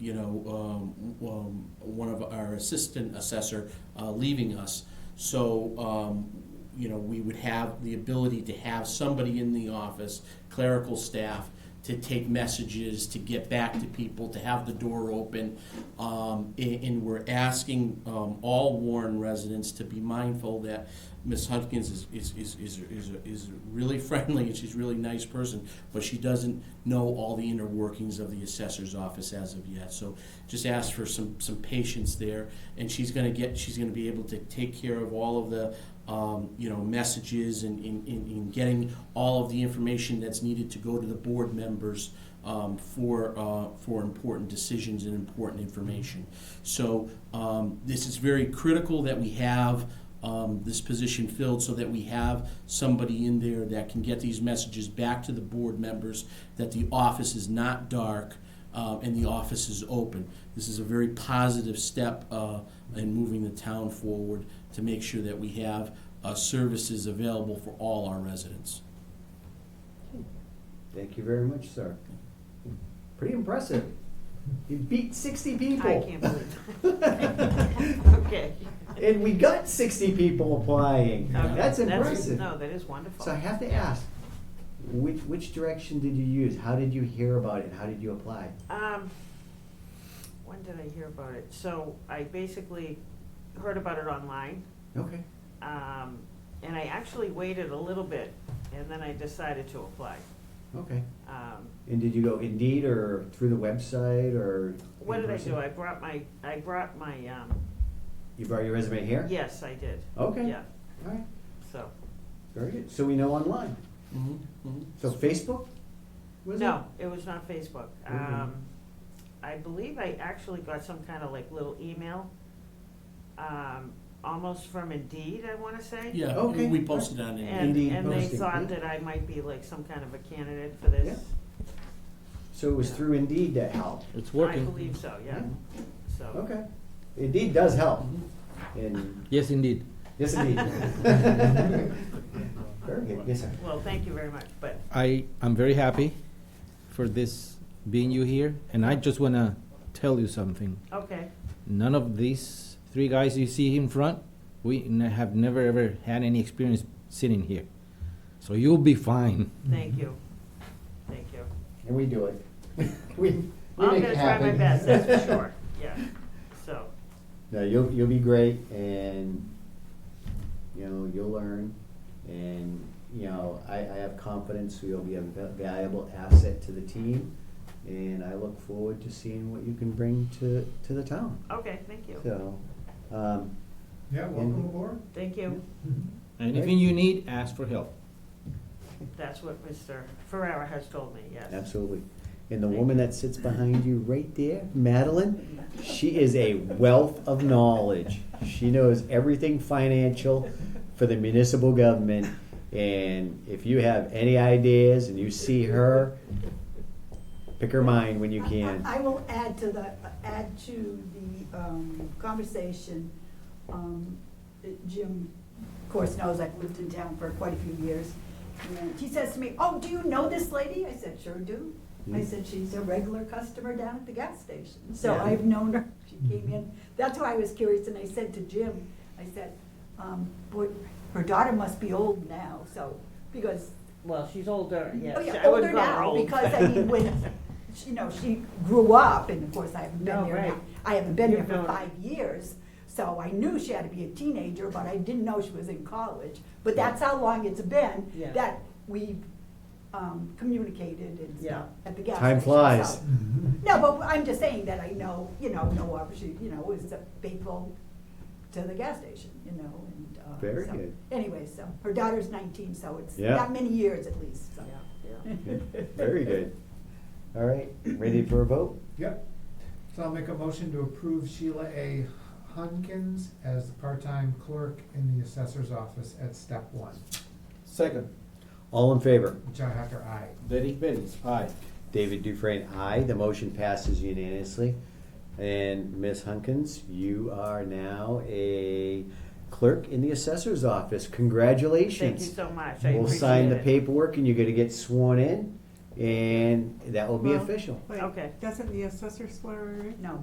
you know, um, um, one of our assistant assessor uh, leaving us. So, um, you know, we would have the ability to have somebody in the office, clerical staff, to take messages, to get back to people, to have the door open. Um, and, and we're asking um, all Warren residents to be mindful that Ms. Hudkins is, is, is, is, is, is really friendly and she's a really nice person, but she doesn't know all the inner workings of the assessor's office as of yet. So just ask for some, some patience there, and she's gonna get, she's gonna be able to take care of all of the, um, you know, messages and, and, and and getting all of the information that's needed to go to the board members, um, for, uh, for important decisions and important information. So, um, this is very critical that we have, um, this position filled so that we have somebody in there that can get these messages back to the board members that the office is not dark uh, and the office is open. This is a very positive step uh, in moving the town forward to make sure that we have uh, services available for all our residents. Thank you very much, sir. Pretty impressive. You beat sixty people. I can't believe believe. it. Okay. And we got sixty people applying. Okay, That's impressive. No, that is wonderful. So I have to ask, which, which direction did you use? How did you hear about it? How did you apply? Um, when did I hear about it? So I basically heard about it online, Okay. um, and I actually waited a little bit, and then I decided to apply. Okay. Um, And did you go Indeed or through the website or? what in did I person? do? I brought my, I brought my, um, You brought your resume here? yes, I did. Okay. Yeah, All right, so, very good. So we know online. Mhm, Mm-hmm, mhm. So Facebook? was it? Mm-hmm. no, it was not Facebook. Okay. Um, I believe I actually got some kind of like little email, um, almost from Indeed, I wanna say. Yeah, Okay. we posted on it. And, Indeed and they posting, thought yeah. that I might be like some kind of a candidate for this. So it was through Indeed that helped? It's I working. believe so, yeah, so. Mm-hmm. Okay. Indeed does help. And, Yes, indeed. yes, indeed. Very good, yes, sir. Well, thank you very much, but, I am very happy for this being you here, and I just wanna tell you something. okay, None of these three guys you see in front, we n- have never ever had any experience sitting here, so you'll be fine. Mm-hmm. thank you, thank you. And we do it. We, we I'm make it gonna try my happen. best, that's for sure, yeah, so, No, you'll, you'll be great and, you know, you'll learn. And, you know, I, I have confidence you'll be a va- valuable asset to the team. And I look forward to seeing what you can bring to, to the town. okay, thank you, So, um, Yeah, welcome aboard. thank you. Anything you need, ask for help. That's what Mr. Ferrara has told me, yes. Absolutely. And the woman that sits behind you right there, Madeline, she is a wealth of knowledge. She knows everything financial for the municipal government. And if you have any ideas and you see her, pick her mind when you can. I I will add to the, add to the um, conversation. Um, Jim, of course, knows I've lived in town for quite a few years. And he says to me, oh, do you know this lady? I said, sure do. I Hmm. said, she's a regular customer down at the gas station. So Yeah. Hmm. I've known her, she came in. That's why I was curious, and I said to Jim, I said, um, boy, her daughter must be old now, so, because Well, she's older, yes. Oh, yeah, I wouldn't older call her now, old. because I mean, when, she- you know, she grew up, and of course, I haven't been No, here, right. now. I haven't been here You've for known her. five years, so I knew she had to be a teenager, but I didn't know she was in college. But that's how long it's been Yeah. that we've um, communicated and Yeah. stuff at the gas station. Time flies. so- No, but I'm just saying that I know, you know, no opportunity, you know, was faithful to the gas station, you know, and. uh, Very so- good. Anyway, so, her daughter's nineteen, so it's Yeah. that many years at least, so. Yeah, yeah. Very good. All right, ready for a vote? Yep. So I'll make a motion to approve Sheila A. Hunkins as the part-time clerk in the assessor's office at step one. Second, All in favor? John Hacker, aye. Derek Bellis, aye. David Dufresne, aye. The motion passes unanimously. And Ms. Hunkins, you are now a clerk in the assessor's office. Thank you Congratulations. so much, I appreciate it. We'll sign the paperwork and you're gonna get sworn in. and that will be Well, official. Wait, Okay. Doesn't the assessor swear her in? No.